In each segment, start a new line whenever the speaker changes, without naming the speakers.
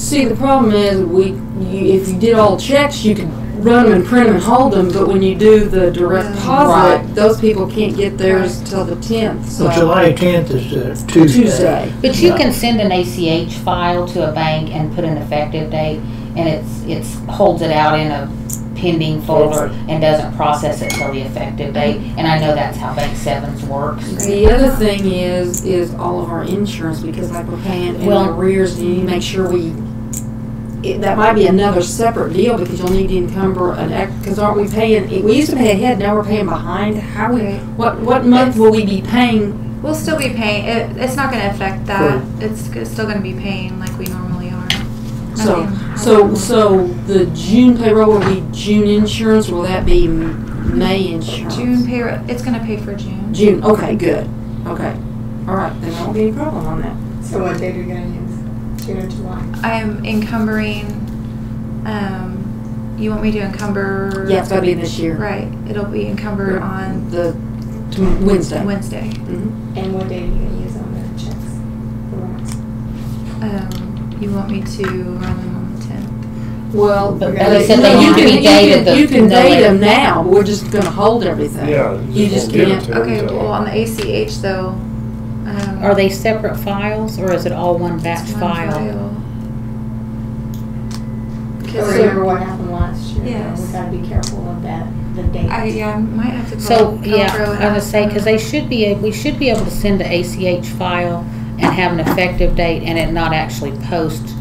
See, the problem is we, you, if you did all checks, you could run them and print them and hold them, but when you do the direct
Right.
deposit, those people can't get theirs till the tenth, so.
Well, July tenth is uh, Tuesday.
Tuesday.
But you can send an ACH file to a bank and put an effective date, and it's, it's, holds it out in a pending folder and doesn't process it till the effective date, and I know that's how Bank Sevens works.
The other thing is, is all of our insurance, because like we're paying in
Well-
arrears, and you need to make sure we, it, that might be another separate deal, because you'll need to encumber an ex, because aren't we paying, we used to pay ahead, now we're paying behind, how we, what, what month will we be paying?
We'll still be paying, it, it's not gonna affect that, it's, g- still gonna be paying like we normally are. I
So,
mean,
so, so the June payroll will be June insurance, or will that be May insurance?
June payroll, it's gonna pay for June.
June, okay, good, okay, all right, then there won't be any problem on that.
So what date are you gonna use? June or July?
I'm encumbering, um, you want me to encumber?
Yeah, it's gotta be this year,
Right, it'll be encumbered on
the, t- Wednesday. Mm-hmm.
Wednesday.
And what date are you gonna use on the checks?
Um, you want me to run them on the tenth?
Well, uh,
But
they
you
said they
can-
want to
you
be
can-
dated the-
You can
the
date
later.
them now, but we're just gonna hold everything.
Yeah.
You just
won't give it
can't-
to them
Okay,
till-
well, on the ACH though, um.
Are they separate files, or is it all one batch
it's one
file?
I
Cause
remember what happened last year. though.
Yes.
We gotta be careful of that, the
I,
date.
yeah, I might have to call.
So, yeah,
Calpro and
I would
ask
say,
them.
because they should be, a- we should be able to send the ACH file and have an effective date and it not actually post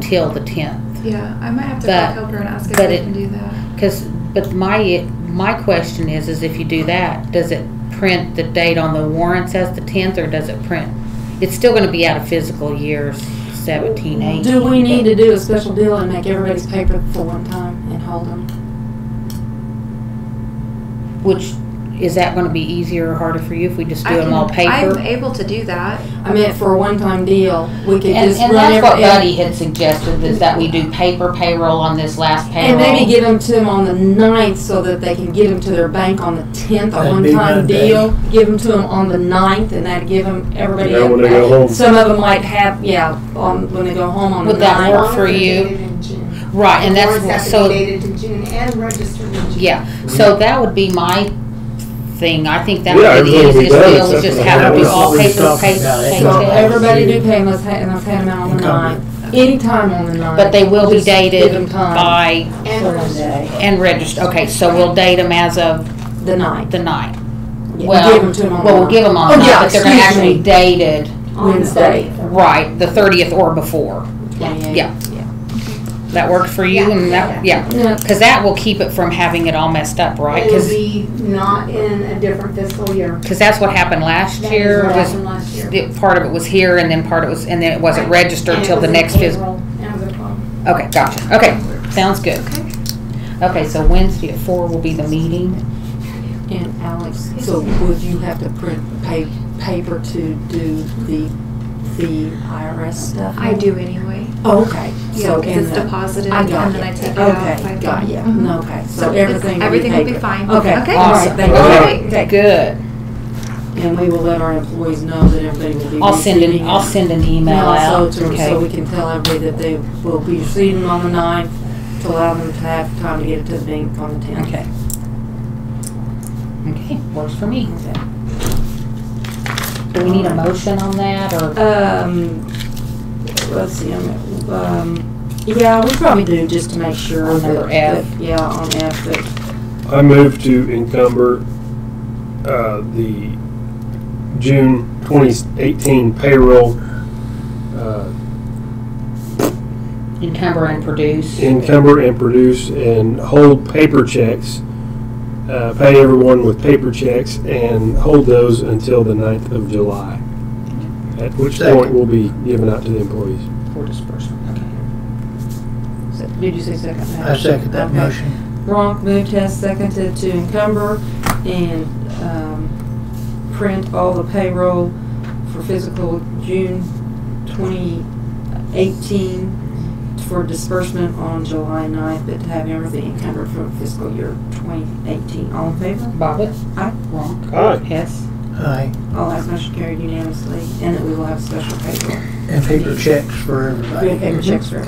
till the tenth.
Yeah, I might have to
But-
call Calpro and ask if
but
they
it-
can do that.
Because, but my, my question is, is if you do that, does it print the date on the warrants as the tenth, or does it print? It's still gonna be out of physical years seventeen, eighteen.
Do we need to do a special deal and make everybody's paper for one time and hold them?
Which, is that gonna be easier or harder for you if we just do
I
them all
can- I'm
paper?
able to do that.
I meant for a one-time deal, we could
And,
just
and
run
that's what
every,
Buddy had suggested, is that we do paper payroll on this last payroll.
and maybe give them to them on the ninth so that they can get them to their bank on the tenth, a
That'd be
one-time
Monday.
deal. Give them to them on the ninth and that'd give them, everybody.
Yeah, when they go home.
Some of them might have, yeah, on, when they go home on the
Would that
ninth.
work for you? Right, and that's, so.
Dated in June and registered in June.
Yeah, so that would be my thing, I think that
Yeah,
would be the
everything would be
easiest
done
deal,
except
is just
for the
have it be
hours.
all
We're
paper,
talking about it.
So
paper,
every-
everybody do pay unless, and I've had them out on the
Encumbered.
ninth, anytime on the ninth.
but they will be
Just Give them
dated
time,
by,
And registered.
and registered, okay, so we'll date them as of
the ninth.
the night.
Yeah,
Well,
give them to 'em on the
Well, we'll
ninth.
give them on
Oh,
the
yeah,
night, but they're gonna
excuse me.
actually dated,
Wednesday.
right, the thirtieth or before,
Yeah.
yeah. That works for you, and that, yeah,
Yeah.
cause that will keep it from having it all messed up, right?
It'll
Cause,
be not in a different fiscal year.
'cause that's what happened last
That is
year,
what
was
happened last year.
it- part of it was here and then part of it was, and then it wasn't registered
And it
till the
was in
next fiscal.
April. That was a problem.
Okay, gotcha. Okay, sounds good. Okay, so Wednesday at four will be the meeting.
And Alex, so would you have to print pa- paper to do the, the IRS stuff?
I do anyway.
Oh, Okay,
Yeah,
so,
because
and
it's
the,
deposited
I
and
got
then I
you.
take it out.
Okay,
by-
got you,
Mhm.
okay, so
it's-
everything will be
Everything will be
paper.
fine.
Okay,
Okay.
all right, thank you.
Awesome.
Okay.
Good.
And we will let our employees know that everybody will be
I'll send an,
receiving.
I'll send an email
also
out.
to- So
Okay.
we can tell everybody that they will be receiving on the ninth, to allow them to have time to get it to the bank on the tenth.
Okay. Okay, works for me. Do we need a motion on that or?
Um, let's see, um, um, yeah, we probably do, just to make sure.
On number
that-
F.
that- Yeah, on F, that,
I move to encumber, uh, the June twenty eighteen payroll, uh,
Encumber and produce.
encumber and produce and hold paper checks. Uh, pay everyone with paper checks and hold those until the ninth of July. At which point
Second.
will be given out to the employees.
For disbursement, okay.
did you say second?
I second that
Okay.
motion.
Ronk moved, Hess seconded to encumber and, um, print all the payroll for physical June twenty eighteen for disbursement on July ninth, but to have everything encumbered for fiscal year twenty eighteen. All in favor?
Bobbit?
Aye.
Wrong.
Aye.
Hess?
Aye.
All eyes motion carried unanimously, and that we will have special paper,
And paper checks for everybody.
paper checks for